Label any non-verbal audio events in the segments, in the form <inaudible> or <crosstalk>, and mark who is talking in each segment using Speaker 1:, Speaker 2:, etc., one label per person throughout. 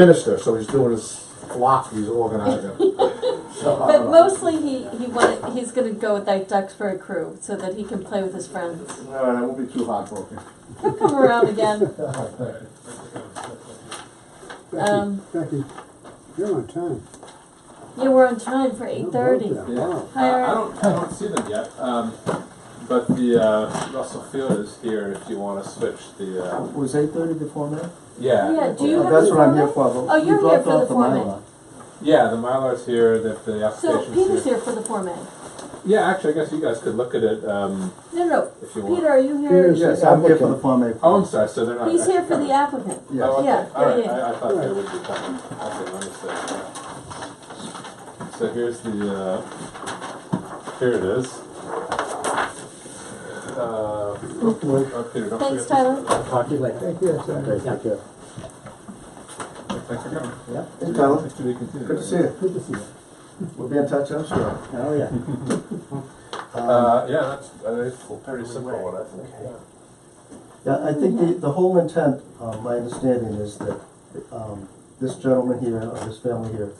Speaker 1: minister, so he's doing his flock, he's
Speaker 2: <laughs>
Speaker 1: organizing. So, I
Speaker 2: But
Speaker 1: don't know.
Speaker 2: mostly he, he wanted, he's gonna go with like Duxbury crew so that he can play with his friends.
Speaker 1: All right, I won't be too heartbroken.
Speaker 2: He'll come around again.
Speaker 3: Becky,
Speaker 2: Um,
Speaker 3: Becky, you're on time.
Speaker 2: Yeah, we're on time for eight thirty.
Speaker 3: Yeah.
Speaker 4: Yeah,
Speaker 3: Wow.
Speaker 2: Hi,
Speaker 4: I I
Speaker 2: Eric.
Speaker 4: don't, I don't see them yet, um, but the, uh, Russell Field is here if you wanna switch the, uh,
Speaker 5: Was eight thirty the format?
Speaker 4: yeah.
Speaker 2: Yeah, do you
Speaker 5: Oh,
Speaker 2: have
Speaker 5: That's
Speaker 2: the
Speaker 5: what I'm
Speaker 2: format?
Speaker 5: here for. but
Speaker 2: Oh,
Speaker 5: we
Speaker 2: you're here
Speaker 5: dropped
Speaker 2: for the
Speaker 5: off
Speaker 2: format.
Speaker 5: Mylar.
Speaker 4: Yeah, the Mylar's here, the, the
Speaker 2: So
Speaker 4: application's
Speaker 2: Peter's
Speaker 4: here.
Speaker 2: here for the Form A.
Speaker 4: Yeah, actually, I guess you guys could look at it, um,
Speaker 2: No, no,
Speaker 4: if you
Speaker 2: Peter,
Speaker 4: want.
Speaker 2: are you here?
Speaker 3: Peter's-
Speaker 5: Yes, I'm here for the format.
Speaker 4: Oh, I'm sorry, so they're not.
Speaker 2: He's here
Speaker 4: actually
Speaker 2: for
Speaker 4: coming.
Speaker 2: the applicant.
Speaker 5: Yes.
Speaker 4: Oh, okay.
Speaker 2: Yeah,
Speaker 4: All right.
Speaker 2: yeah, yeah.
Speaker 4: I, I thought they would be coming. Okay, let me see. Yeah. So here's the, uh, here it is. Uh, oh, Peter, don't
Speaker 2: Thanks,
Speaker 4: forget
Speaker 2: Tyler.
Speaker 4: this. Talk to you later.
Speaker 3: Thank you.
Speaker 5: Okay, take care.
Speaker 4: Thanks for coming.
Speaker 5: Yeah.
Speaker 1: Hey, Tyler,
Speaker 4: Nice to be continued.
Speaker 1: good to see you.
Speaker 5: Good to see you.
Speaker 1: We'll be in touch, I'm sure.
Speaker 5: Oh, yeah.
Speaker 4: Uh, yeah, that's, uh, it's a pretty simple one, I think.
Speaker 5: Yeah, I think the, the whole intent, uh, my understanding is that, um, this gentleman here, or this family here,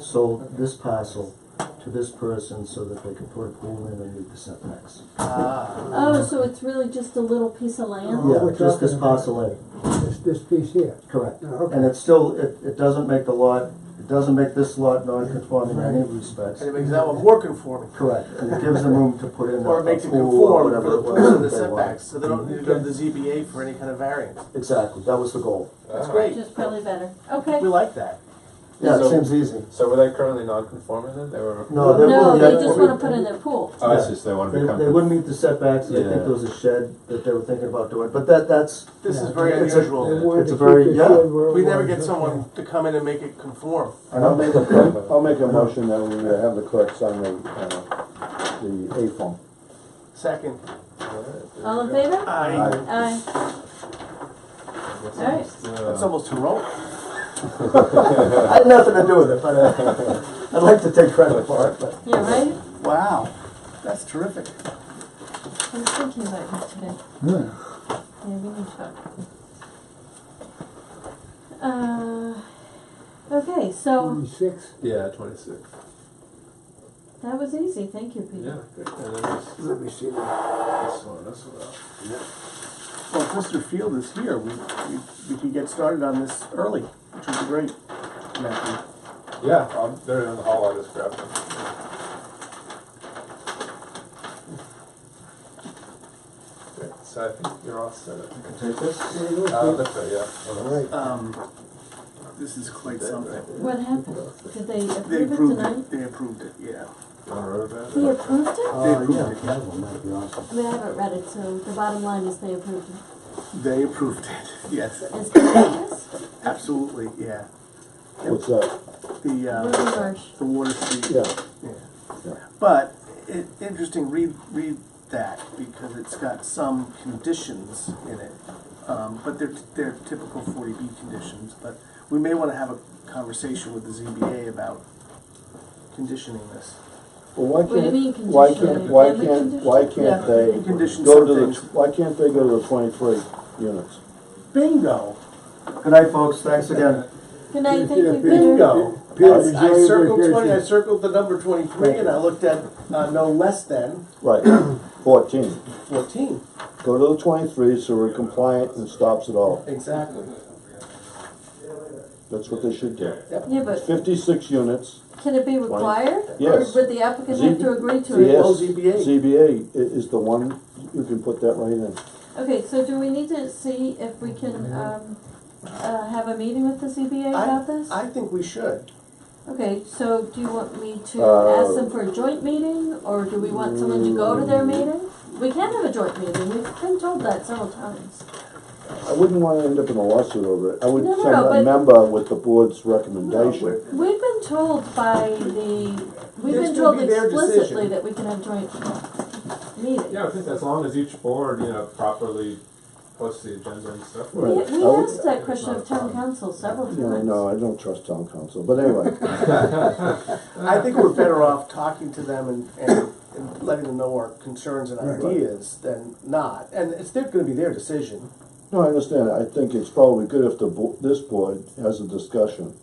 Speaker 5: sold this parcel to this person so that they could put a pool in and meet the setbacks.
Speaker 2: Oh, so it's really just a little piece of land?
Speaker 5: Yeah,
Speaker 3: we're
Speaker 5: just this
Speaker 3: talking about-
Speaker 5: parcel A,
Speaker 3: This, this piece here.
Speaker 5: correct.
Speaker 3: Now, okay.
Speaker 5: And it's still, it, it doesn't make the lot, it doesn't make this lot non-conforming in any respects.
Speaker 6: And it makes that one more conforming,
Speaker 5: Correct, and it gives them room to put in a
Speaker 6: or it makes
Speaker 5: a
Speaker 6: it
Speaker 5: pool or
Speaker 6: conform
Speaker 5: whatever
Speaker 6: for the
Speaker 5: it was.
Speaker 6: purpose of the
Speaker 5: that they want.
Speaker 6: setbacks, so they don't need to go to the ZBA for any kind of variance.
Speaker 5: Exactly, that was the goal.
Speaker 6: That's
Speaker 4: Ah.
Speaker 6: great.
Speaker 2: Which is probably better. Okay.
Speaker 6: We like that.
Speaker 5: Yeah,
Speaker 4: So-
Speaker 5: it seems easy.
Speaker 4: So were they currently non-conforming then? They were.
Speaker 5: No, they
Speaker 2: No,
Speaker 5: wouldn't.
Speaker 2: they just wanna put in their pool.
Speaker 4: Oh, I see, so they want
Speaker 5: They,
Speaker 4: to become.
Speaker 5: they wouldn't meet the setbacks, they
Speaker 4: Yeah.
Speaker 5: think there was a shed that they were thinking about doing, but that, that's,
Speaker 6: This is
Speaker 3: Yeah.
Speaker 6: very
Speaker 5: It's a-
Speaker 3: They
Speaker 6: unusual.
Speaker 3: wanted
Speaker 5: It's
Speaker 3: to
Speaker 5: a very-
Speaker 3: keep it
Speaker 5: yeah.
Speaker 3: good where it
Speaker 6: We never
Speaker 3: was,
Speaker 6: get
Speaker 3: okay.
Speaker 6: someone to come in and make it conform.
Speaker 5: I don't think,
Speaker 7: I'll make a motion that we have the clerk sign the, uh, the A form.
Speaker 6: Second,
Speaker 2: All in favor?
Speaker 6: I,
Speaker 2: Aye. All right.
Speaker 6: that's almost heroic.
Speaker 5: I had nothing to do with it, but, uh, I'd like to take credit for it, but.
Speaker 2: Yeah, right?
Speaker 6: Wow, that's terrific.
Speaker 2: I was thinking about you today. Yeah, we can talk. Uh, okay, so
Speaker 3: Twenty-six.
Speaker 4: Yeah, twenty-six.
Speaker 2: that was easy. Thank you, Peter.
Speaker 4: Yeah, great. And then this, this
Speaker 3: Let me see. that.
Speaker 4: one, this one.
Speaker 6: Well, if Mr. Field is here, we, we, we could get started on this early, which would be great. Matthew.
Speaker 4: Yeah, um, they're in the hall, I just grabbed them. Great, so I think you're all set. up.
Speaker 5: Take this?
Speaker 4: Uh, that's right, yeah.
Speaker 5: All right.
Speaker 6: Um, this is quite something.
Speaker 2: What happened? Did they
Speaker 6: They
Speaker 2: approve it
Speaker 6: approved
Speaker 2: tonight?
Speaker 6: it, they approved it, yeah.
Speaker 4: You wanna roll it
Speaker 2: They
Speaker 4: back?
Speaker 2: approved it?
Speaker 5: Uh, yeah, that one, that'd be awesome.
Speaker 2: I mean, I haven't read it, so the bottom line is they approved it.
Speaker 6: They approved it, <laughs> yes,
Speaker 2: Is that yes?
Speaker 6: absolutely, yeah.
Speaker 7: What's that?
Speaker 6: The,
Speaker 2: Ruby
Speaker 6: uh,
Speaker 2: Marsh.
Speaker 6: the water street.
Speaker 7: Yeah,
Speaker 6: Yeah.
Speaker 7: Yeah.
Speaker 6: But, it, interesting, read, read that, because it's got some conditions in it. Um, but they're, they're typical forty B conditions, but we may wanna have a conversation with the ZBA about conditioning this.
Speaker 7: well, why
Speaker 2: What do you
Speaker 7: can't,
Speaker 2: mean
Speaker 7: why
Speaker 2: conditional?
Speaker 7: can't, why
Speaker 2: Can we
Speaker 7: can't,
Speaker 2: condition?
Speaker 7: why
Speaker 6: Yeah,
Speaker 7: can't they
Speaker 6: we condition
Speaker 7: go
Speaker 6: some
Speaker 7: to the,
Speaker 6: things.
Speaker 7: why can't they go to the twenty-three units?
Speaker 6: Bingo,
Speaker 5: Good night, folks, thanks again.
Speaker 2: Good night, thank you, Peter.
Speaker 6: bingo.
Speaker 3: Peter,
Speaker 6: I-
Speaker 3: is
Speaker 6: I
Speaker 3: there
Speaker 6: circled
Speaker 3: vacation?
Speaker 6: twenty, I circled the number twenty-three, and I looked at, uh, no less than
Speaker 7: Right, <coughs> fourteen.
Speaker 6: fourteen.
Speaker 7: Go to the twenty-three so we're compliant and stops it all.
Speaker 6: Exactly.
Speaker 7: That's what they should do.
Speaker 2: Yeah, but
Speaker 7: Fifty-six units,
Speaker 2: can it be required?
Speaker 7: Yes.
Speaker 2: Or would the applicant have to agree to it?
Speaker 7: yes.
Speaker 6: Well, ZBA.
Speaker 7: ZBA i- is the one, you can put that right in.
Speaker 2: Okay, so do we need to see if we can, um, uh, have a meeting with the ZBA
Speaker 6: I-
Speaker 2: about this?
Speaker 6: I think we should.
Speaker 2: Okay, so do you want me to
Speaker 7: Uh,
Speaker 2: ask them for a joint meeting, or do we want someone to go to
Speaker 7: Mm.
Speaker 2: their meeting? We can have a joint meeting, we've been told that several times.
Speaker 7: I wouldn't wanna end up in a lawsuit over it. I would
Speaker 2: No, no,
Speaker 7: send
Speaker 2: no,
Speaker 7: a
Speaker 2: but-
Speaker 7: member with the board's recommendation.
Speaker 2: We've been told by the, we've
Speaker 6: It's
Speaker 2: been
Speaker 6: gonna
Speaker 2: told
Speaker 6: be their
Speaker 2: explicitly
Speaker 6: decision.
Speaker 2: that we can have joint meetings.
Speaker 4: Yeah, I think as long as each board, you know, properly posts the agenda and stuff.
Speaker 2: We,
Speaker 7: Right.
Speaker 2: we
Speaker 7: I would-
Speaker 2: asked that question of town council several
Speaker 7: No,
Speaker 2: times.
Speaker 7: no, I don't trust town council,
Speaker 2: <laughs>
Speaker 7: but anyway,
Speaker 6: I think we're better off talking to them and, and, and letting them know our concerns and ideas than not. And it's, they're gonna be their decision.
Speaker 7: No, I understand, I think it's probably good if the, bo- this board has a discussion